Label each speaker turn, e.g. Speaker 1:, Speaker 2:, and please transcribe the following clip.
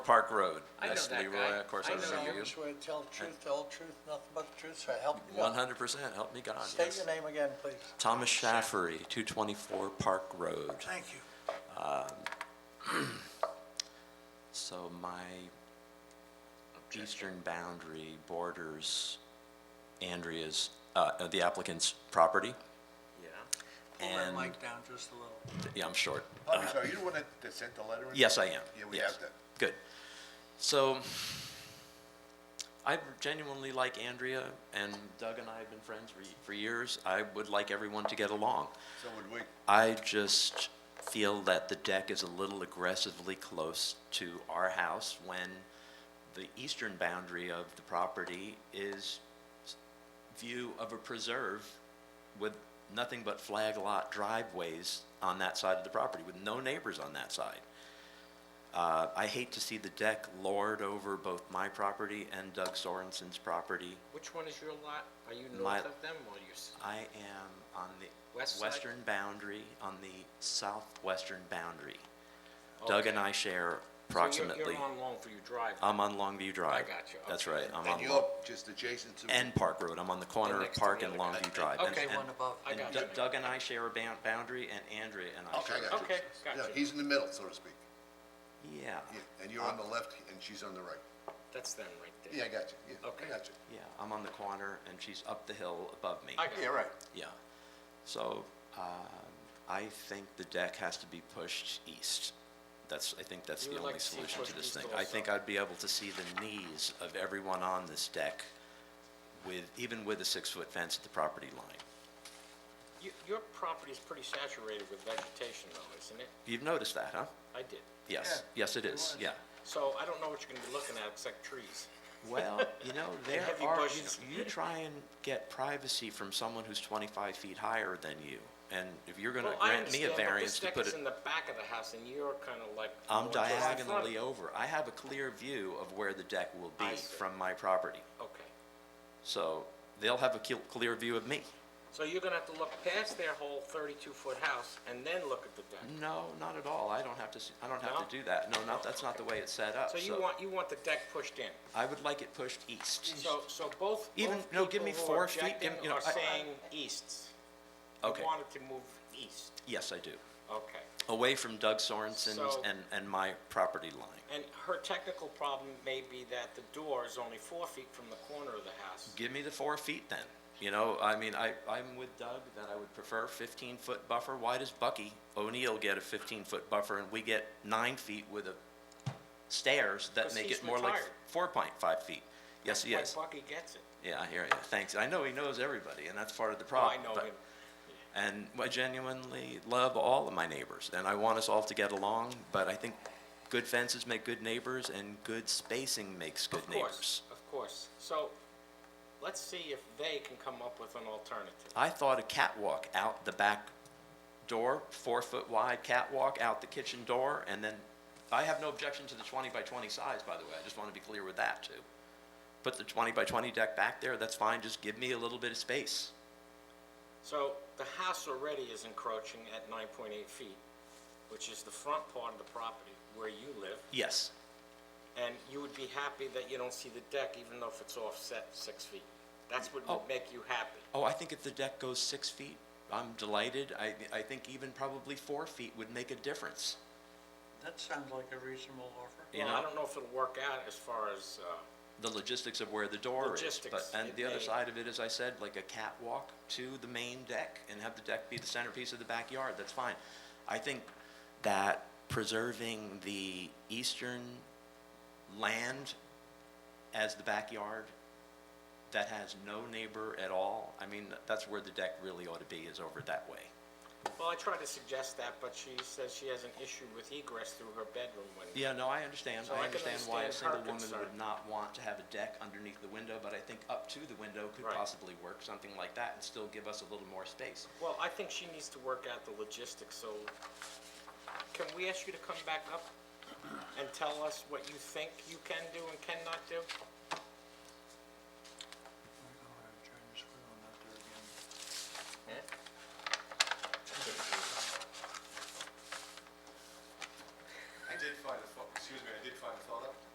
Speaker 1: Park Road.
Speaker 2: I know
Speaker 1: Yes,
Speaker 2: that
Speaker 1: Leroy,
Speaker 2: guy.
Speaker 1: Of course, I
Speaker 2: I know
Speaker 1: remember
Speaker 2: him.
Speaker 1: you.
Speaker 3: Swear to tell the truth, the whole truth, nothing but the truth, so help me
Speaker 1: One
Speaker 3: God.
Speaker 1: hundred percent, help me God,
Speaker 3: State
Speaker 1: yes.
Speaker 3: your name again, please.
Speaker 1: Thomas Shaffery, two twenty-four Park Road.
Speaker 3: Thank you.
Speaker 1: So my eastern boundary borders Andrea's, uh, uh, the applicant's property,
Speaker 2: Yeah.
Speaker 3: Pull that
Speaker 1: and,
Speaker 3: mic down just a little.
Speaker 1: yeah, I'm short.
Speaker 4: Oh, I'm sorry, you the one that that sent the letter? in?
Speaker 1: Yes, I am.
Speaker 4: Yeah, we
Speaker 1: Yes.
Speaker 4: have that.
Speaker 1: Good. So I genuinely like Andrea, and Doug and I have been friends for, y- for years. I would like everyone to get along.
Speaker 4: So would we,
Speaker 1: I just feel that the deck is a little aggressively close to our house when the eastern boundary of the property is s- view of a preserve with nothing but flag lot driveways on that side of the property, with no neighbors on that side. Uh, I hate to see the deck lord over both my property and Doug Sorensen's property.
Speaker 2: Which one is your lot? Are you
Speaker 1: My-
Speaker 2: north of them or you, s-
Speaker 1: I am on the
Speaker 2: West side?
Speaker 1: western boundary, on the southwestern boundary. Doug and I share
Speaker 2: So
Speaker 1: approximately, Uh,
Speaker 2: you're- you're on Longview Drive?
Speaker 1: I'm on Longview Drive.
Speaker 2: I got you,
Speaker 1: That's
Speaker 2: okay.
Speaker 1: right, I'm
Speaker 4: and
Speaker 1: on,
Speaker 4: you're
Speaker 1: Long-
Speaker 4: just adjacent to.
Speaker 1: and Park Road, I'm on the corner of
Speaker 2: next to
Speaker 1: Park
Speaker 2: the
Speaker 1: and
Speaker 2: other
Speaker 1: Longview Drive. And-
Speaker 2: Okay.
Speaker 1: and-
Speaker 3: One above.
Speaker 2: I got
Speaker 1: And
Speaker 2: you.
Speaker 1: Doug- Doug and I share a ban- boundary, and Andrea and I
Speaker 4: Okay,
Speaker 1: share.
Speaker 4: I
Speaker 1: a
Speaker 4: got you.
Speaker 2: Okay, got
Speaker 4: Yeah,
Speaker 2: you.
Speaker 4: He's in the middle, so to speak.
Speaker 1: Yeah,
Speaker 4: Yeah, and you're on
Speaker 1: Uh,
Speaker 4: the left and she's on the right.
Speaker 2: That's them right there.
Speaker 4: Yeah, I got you. Yeah,
Speaker 2: Okay.
Speaker 4: I got you.
Speaker 1: yeah, I'm on the corner, and she's up the hill above me.
Speaker 2: I got
Speaker 4: Yeah,
Speaker 2: you.
Speaker 4: right.
Speaker 1: Yeah. So um, I think the deck has to be pushed east. That's, I think that's
Speaker 2: You
Speaker 1: the
Speaker 2: would
Speaker 1: only
Speaker 2: like to see it
Speaker 1: solution to
Speaker 2: pushed
Speaker 1: this
Speaker 2: east
Speaker 1: thing. I
Speaker 2: also.
Speaker 1: think I'd be able to see the knees of everyone on this deck with, even with a six-foot fence at the property line.
Speaker 2: You- Your property's pretty saturated with vegetation though, isn't it?
Speaker 1: You've noticed that, huh?
Speaker 2: I did.
Speaker 1: Yes, yes, it is, yeah.
Speaker 2: So I don't know what you're gonna be looking at except trees.
Speaker 1: Well, you know, there
Speaker 2: heavy
Speaker 1: are,
Speaker 2: bushes.
Speaker 1: you- you try and get privacy from someone who's 25 feet higher than you. And if you're going to
Speaker 2: Well, I
Speaker 1: grant me
Speaker 2: understand,
Speaker 1: a
Speaker 2: but
Speaker 1: variance to put
Speaker 2: This deck
Speaker 1: it.
Speaker 2: is in the back of the house and you're kinda like.
Speaker 1: I'm
Speaker 2: going towards the front.
Speaker 1: diagonally over. I have a clear view of where the deck will
Speaker 2: I
Speaker 1: be
Speaker 2: see.
Speaker 1: from my property.
Speaker 2: Okay.
Speaker 1: So they'll have a cl- clear view of me.
Speaker 2: So you're gonna have to look past their whole thirty-two foot house and then look at the deck.
Speaker 1: No, not at all. I don't have to, s- I don't
Speaker 2: No?
Speaker 1: have to do that. No, not, that's not the way it's set up.
Speaker 2: So you want, you want the deck pushed in?
Speaker 1: I would like it pushed east.
Speaker 2: So, so both,
Speaker 1: Even-
Speaker 2: both
Speaker 1: no, give me
Speaker 2: people who
Speaker 1: four
Speaker 2: are
Speaker 1: feet, give
Speaker 2: objecting
Speaker 1: me- you know,
Speaker 2: are
Speaker 1: I- I-
Speaker 2: saying easts.
Speaker 1: Okay.
Speaker 2: You wanted to move east,
Speaker 1: Yes, I do.
Speaker 2: okay.
Speaker 1: Away from Doug Sorensen's
Speaker 2: So-
Speaker 1: and, and my property line.
Speaker 2: And her technical problem may be that the door is only four feet from the corner of the house.
Speaker 1: Give me the four feet then. You know, I mean, I, I'm with Doug that I would prefer 15-foot buffer. Why does Bucky O'Neill get a 15-foot buffer and we get nine feet with a stairs that
Speaker 2: 'Cause
Speaker 1: make
Speaker 2: he's
Speaker 1: it more like
Speaker 2: retired.
Speaker 1: 4.5 feet? Yes, he is.
Speaker 2: Like Bucky gets it.
Speaker 1: Yeah, I hear you. Thanks. I know he knows everybody, and that's part of the
Speaker 2: Oh, I
Speaker 1: problem.
Speaker 2: know
Speaker 1: but-
Speaker 2: him.
Speaker 1: And I genuinely love all of my neighbors, and I want us all to get along, but I think good fences make good neighbors, and good spacing makes good
Speaker 2: Of course,
Speaker 1: neighbors.
Speaker 2: of course. So, let's see if they can come up with an alternative.
Speaker 1: I thought a catwalk out the back door, four-foot wide catwalk out the kitchen door, and then, I have no objection to the 20 by 20 size, by the way. I just want to be clear with that, too. Put the 20 by 20 deck back there, that's fine, just give me a little bit of space.
Speaker 2: So, the house already is encroaching at nine point eight feet, which is the front part of the property where you live.
Speaker 1: Yes.
Speaker 2: And you would be happy that you don't see the deck, even though if it's offset six feet. That's what
Speaker 1: Oh.
Speaker 2: would make you happy.
Speaker 1: Oh, I think if the deck goes six feet, I'm delighted. I, I think even probably four feet would make a difference.
Speaker 3: That sounds like a reasonable offer.
Speaker 1: You
Speaker 2: Well, I
Speaker 1: know?
Speaker 2: don't know if it'll work out as far as, uh,
Speaker 1: The logistics of where the door is. But,
Speaker 2: Logistics,
Speaker 1: and
Speaker 2: it
Speaker 1: the other
Speaker 2: may-
Speaker 1: side of it, as I said, like a catwalk to the main deck and have the deck be the centerpiece of the backyard, that's fine. I think that preserving the eastern land as the backyard that has no neighbor at all, I mean, that's where the deck really ought to be, is over that way.
Speaker 2: well, I tried to suggest that, but she says she has an issue with egress through her bedroom window.
Speaker 1: Yeah, no, I understand.
Speaker 2: So I
Speaker 1: I
Speaker 2: can
Speaker 1: understand why a
Speaker 2: understand her
Speaker 1: single woman would
Speaker 2: concern.
Speaker 1: not want to have a deck underneath the window, but I think up to the window could
Speaker 2: Right.
Speaker 1: possibly work, something like that, and still give us a little more space.
Speaker 2: Well, I think she needs to work out the logistics, so can we ask you to come back up and tell us what you think you can do and cannot do?